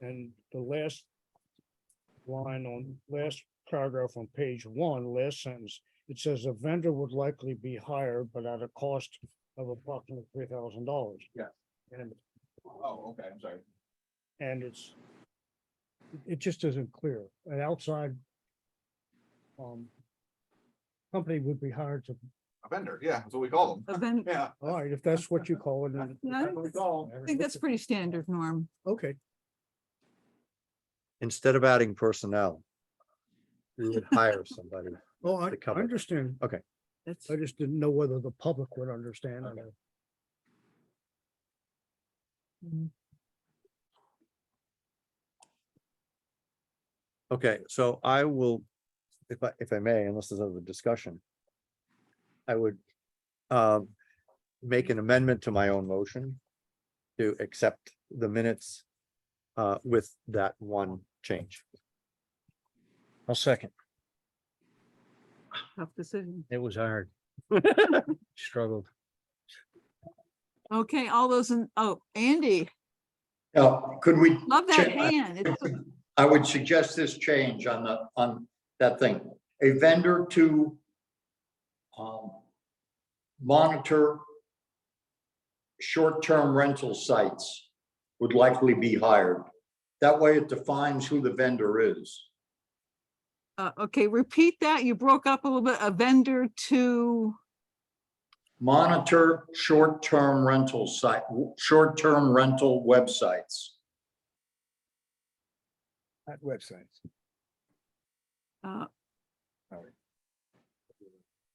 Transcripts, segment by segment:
And the last line on, last paragraph on page one, last sentence, it says a vendor would likely be hired, but at a cost of approximately three thousand dollars. Yeah. And, Oh, okay, I'm sorry. and it's, it just isn't clear. An outside um, company would be hired to, A vendor, yeah, that's what we call them. But then Yeah. all right, if that's what you call it, then. No, That's what we call 'em. I think that's pretty standard, Norm. Okay, instead of adding personnel. We would hire somebody. well, I To I cover it. understand. That's, I just didn't know whether the public would understand. or Okay. not. mm, Okay, so I will, if I, if I may, unless there's other discussion. I would um, make an amendment to my own motion to accept the minutes uh, with that one change. I'll second. tough decision. It was hard. Struggled. Okay, all those in, oh, Andy, Now, could we, love that Check. hand. It's so- I would suggest this change on the, on that thing, a vendor to um, monitor short-term rental sites would likely be hired. That way it defines who the vendor is. Uh, okay, repeat that. You broke up a little bit. A vendor to, Monitor short-term rental site, short-term rental websites. At websites. uh,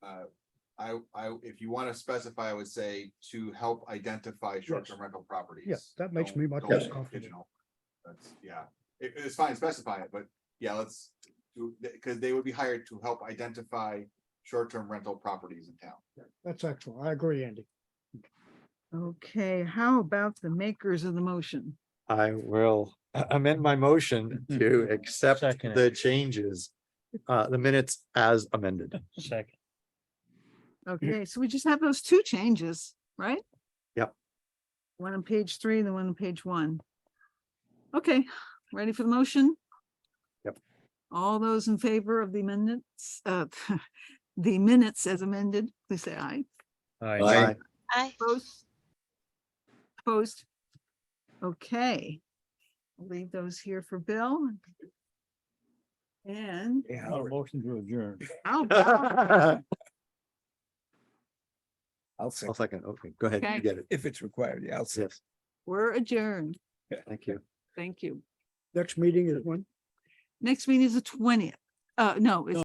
Uh, I, I, if you want to specify, I would say to help identify short-term rental properties. that makes Don't- me much don't more make it confident. pigeonhole. That's, yeah, It- it's fine, specify it, but yeah, let's do, because they would be hired to help identify short-term rental properties in town. That's excellent. I agree, Andy. okay, how about the makers of the motion? I will a- amend my motion to accept Second it. the changes, uh, the minutes as amended. Second. Mm. Okay, so we just have those two changes, right? Yep. One on page three and the one on page one. Okay, ready for the motion? Yep. All those in favor of the amendments, uh, the minutes as amended, please say aye. Aye. Aye. Aye. Opposed? Opposed? Okay. I'll Leave those here for Bill. And Yeah. Motion to adjourn. how about I'll I'll say. second. Okay, go ahead. Okay. You get it. If it's required, yeah, I'll say. Yes, we're adjourned. thank you. Thank you. Next meeting is when? Next meeting is the twentieth. Uh, no, it's